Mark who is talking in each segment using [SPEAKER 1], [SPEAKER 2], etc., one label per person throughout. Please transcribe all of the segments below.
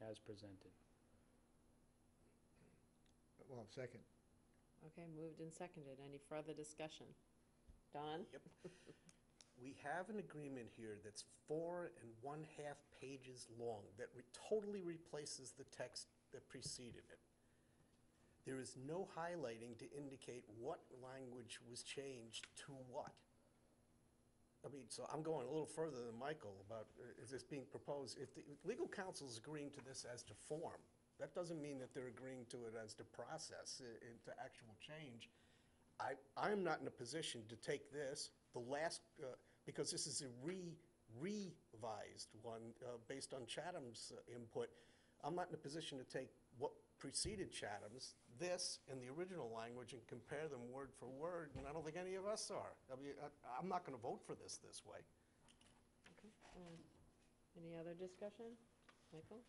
[SPEAKER 1] as presented.
[SPEAKER 2] Well, second.
[SPEAKER 3] Okay, moved and seconded. Any further discussion? Don?
[SPEAKER 4] Yep. We have an agreement here that's four and one-half pages long that re- totally replaces the text that preceded it. There is no highlighting to indicate what language was changed to what. I mean, so I'm going a little further than Michael about, uh, is this being proposed? If the if legal counsel's agreeing to this as to form, that doesn't mean that they're agreeing to it as to process, uh, and to actual change. I, I'm not in a position to take this, the last, uh, because this is a re, revised one uh, based on Chatham's uh, input. I'm not in a position to take what preceded Chatham's, this and the original language and compare them word for word, and I don't think any of us are. I mean, I, I'm not gonna vote for this this way.
[SPEAKER 3] Okay, um, Any other discussion? Michael?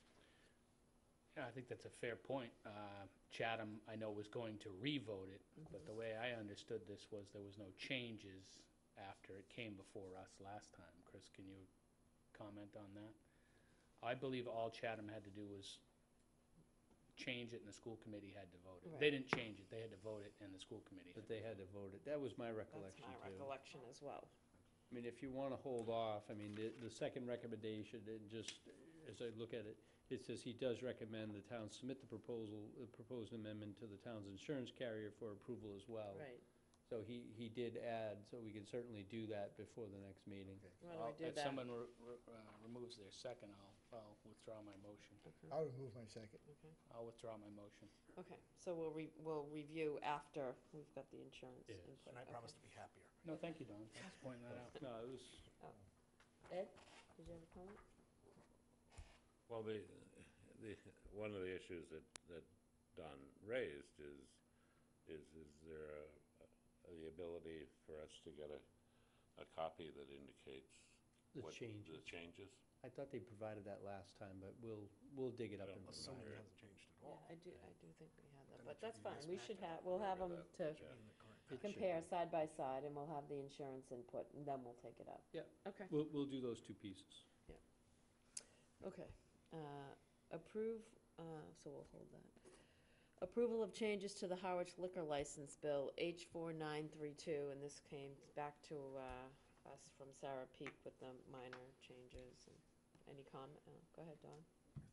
[SPEAKER 1] Yeah, I think that's a fair point. Uh, Chatham, I know, was going to re-vote it, but the way I understood this was there was no changes after it came before us last time. Chris, can you comment on that? I believe all Chatham had to do was change it and the school committee had to vote it. They
[SPEAKER 3] Right.
[SPEAKER 1] didn't change it, they had to vote it and the school committee.
[SPEAKER 5] But they had to vote it. That was my
[SPEAKER 3] That's
[SPEAKER 5] recollection
[SPEAKER 3] my
[SPEAKER 5] too.
[SPEAKER 3] recollection as well.
[SPEAKER 5] I mean, if you want to hold off, I mean, the, the second recommendation, and just, as I look at it, it says he does recommend the town submit the proposal, the proposed amendment to the town's insurance carrier for approval as well.
[SPEAKER 3] Right.
[SPEAKER 5] So he, he did add, so we can certainly do that before the next meeting.
[SPEAKER 3] Why don't we do
[SPEAKER 1] If
[SPEAKER 3] that?
[SPEAKER 1] someone re- re- uh, removes their second, I'll, I'll withdraw my motion.
[SPEAKER 2] I'll remove my second.
[SPEAKER 3] Okay.
[SPEAKER 1] I'll withdraw my motion.
[SPEAKER 3] Okay, so we'll re, we'll review after we've got the insurance
[SPEAKER 1] Yes.
[SPEAKER 3] input.
[SPEAKER 4] And I
[SPEAKER 3] Okay.
[SPEAKER 4] promise to be happier.
[SPEAKER 1] No, thank you, Don, thanks for pointing that out.
[SPEAKER 5] No, it was,
[SPEAKER 3] Ed, did you have a comment?
[SPEAKER 6] Well, the, the, one of the issues that, that Don raised is, is, is there a- the ability for us to get a, a copy that indicates?
[SPEAKER 5] The
[SPEAKER 6] what The
[SPEAKER 5] changes.
[SPEAKER 6] changes?
[SPEAKER 5] I thought they provided that last time, but we'll, we'll dig it up
[SPEAKER 6] Yeah.
[SPEAKER 5] and
[SPEAKER 4] Unless
[SPEAKER 5] provide
[SPEAKER 4] somebody
[SPEAKER 5] it.
[SPEAKER 4] hasn't changed at all.
[SPEAKER 3] Yeah, I do, I do think we had that,
[SPEAKER 4] Then
[SPEAKER 3] but
[SPEAKER 4] it should
[SPEAKER 3] that's
[SPEAKER 4] be
[SPEAKER 3] fine.
[SPEAKER 4] this
[SPEAKER 3] We should have,
[SPEAKER 4] packet.
[SPEAKER 3] we'll have them to
[SPEAKER 6] Remember that, yeah.
[SPEAKER 4] In the current
[SPEAKER 5] It should
[SPEAKER 3] compare
[SPEAKER 5] be.
[SPEAKER 3] side by side and we'll have the insurance input and then we'll take it up.
[SPEAKER 5] Yeah.
[SPEAKER 3] Okay.
[SPEAKER 5] We'll, we'll do those two pieces.
[SPEAKER 3] Okay, uh, approve, uh, so we'll hold that. Approval of changes to the Harwich liquor license bill, H four nine three two, and this came back to, uh, us from Sarah Peak with the minor changes. and- Any comment? Oh, Go ahead, Dawn.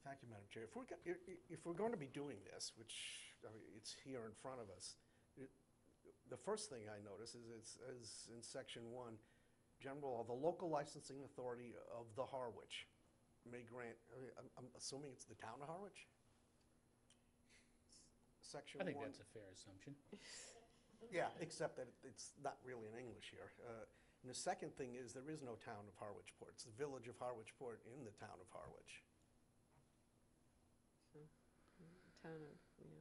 [SPEAKER 4] Thank you, Madam Chair. If we're, go- i- i- if we're going to be doing this, which, I mean, it's here in front of us, it- the first thing I notice is, it's, is in section one, general, law, the local licensing authority of the Harwich may grant, I mean, I'm, I'm assuming it's the town of Harwich? Section
[SPEAKER 1] I
[SPEAKER 4] one.
[SPEAKER 1] think that's a fair assumption.
[SPEAKER 4] Yeah, except that it's not really in English here. Uh, And the second thing is, there is no town of Harwichport. It's the village of Harwichport in the town of Harwich.
[SPEAKER 3] Town of, yeah.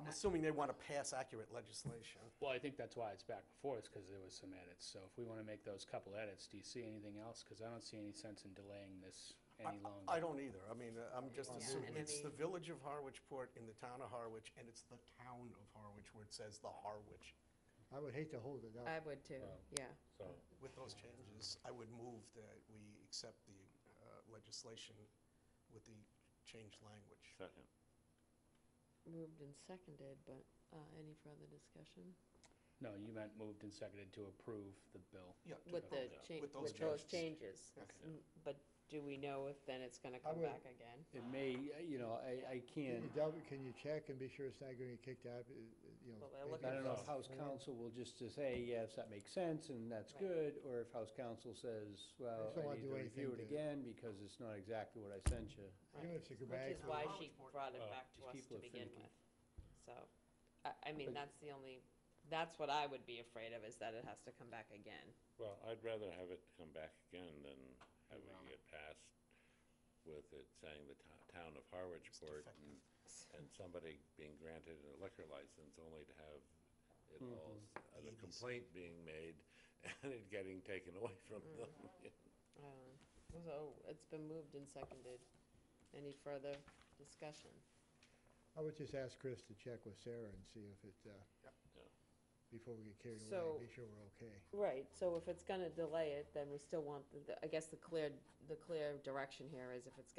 [SPEAKER 4] I'm assuming they want to pass accurate legislation.
[SPEAKER 1] Well, I think that's why it's back before, is because there was some edits. So if we want to make those couple edits, do you see anything else? Because I don't see any sense in delaying this
[SPEAKER 4] I-
[SPEAKER 1] any longer.
[SPEAKER 4] I don't either. I mean, uh, I'm just
[SPEAKER 3] Yeah,
[SPEAKER 4] assuming,
[SPEAKER 3] and I
[SPEAKER 4] it's the
[SPEAKER 3] mean-
[SPEAKER 4] village of Harwichport in the town of Harwich, and it's the town of Harwich where it says the Harwich.
[SPEAKER 2] I would hate to hold it up.
[SPEAKER 3] I would too, yeah.
[SPEAKER 6] So,
[SPEAKER 4] With those changes, I would move that we accept the uh, legislation with the changed language.
[SPEAKER 6] second.
[SPEAKER 3] Moved and seconded, but, uh, any further discussion?
[SPEAKER 1] No, you meant moved and seconded to approve the bill.
[SPEAKER 4] Yeah,
[SPEAKER 3] With the
[SPEAKER 6] Yeah.
[SPEAKER 3] change,
[SPEAKER 4] With those
[SPEAKER 3] with those
[SPEAKER 4] changes.
[SPEAKER 3] changes.
[SPEAKER 4] Okay.
[SPEAKER 3] Mm, But do we know if then it's gonna
[SPEAKER 2] I
[SPEAKER 3] come
[SPEAKER 2] would-
[SPEAKER 3] back again?
[SPEAKER 5] It may, you know, I, I
[SPEAKER 2] Can
[SPEAKER 5] can't
[SPEAKER 2] you double, can you check and be sure it's not gonna get kicked out, uh, uh, you know?
[SPEAKER 3] Well, they're
[SPEAKER 2] maybe
[SPEAKER 3] looking
[SPEAKER 5] I don't know if
[SPEAKER 2] it's-
[SPEAKER 5] House counsel will just to say, yes, that makes sense, and that's
[SPEAKER 3] Right.
[SPEAKER 5] good, or if House counsel says, well,
[SPEAKER 2] just don't
[SPEAKER 5] I
[SPEAKER 2] wanna
[SPEAKER 5] need
[SPEAKER 2] do
[SPEAKER 5] to review it
[SPEAKER 2] anything to-
[SPEAKER 5] again, because it's not exactly what I sent you.
[SPEAKER 2] Even if you go back.
[SPEAKER 3] Which is
[SPEAKER 2] to-
[SPEAKER 3] why she brought it
[SPEAKER 6] Oh,
[SPEAKER 3] back to
[SPEAKER 5] these
[SPEAKER 3] us
[SPEAKER 5] people
[SPEAKER 3] to
[SPEAKER 5] are
[SPEAKER 3] begin
[SPEAKER 5] finicky.
[SPEAKER 3] with. So, I, I mean,
[SPEAKER 5] But-
[SPEAKER 3] that's the only, that's what I would be afraid of, is that it has to come back again.
[SPEAKER 6] Well, I'd rather have it come back again than have it
[SPEAKER 1] Around.
[SPEAKER 6] get passed with it saying the to- town of Harwichport and, and somebody being granted a liquor license only to have it all, s- uh, the
[SPEAKER 4] ABC.
[SPEAKER 6] complaint being made and it getting taken away from them.
[SPEAKER 3] Um, So, it's been moved and seconded. Any further discussion?
[SPEAKER 2] I would just ask Chris to check with Sarah and see if it, uh,
[SPEAKER 4] Yep.
[SPEAKER 6] Yeah.
[SPEAKER 2] before we get carried
[SPEAKER 3] So-
[SPEAKER 2] away, be sure we're okay.
[SPEAKER 3] Right, so if it's gonna delay it, then we still want, the- the- I guess the clear, the clear direction here is if it's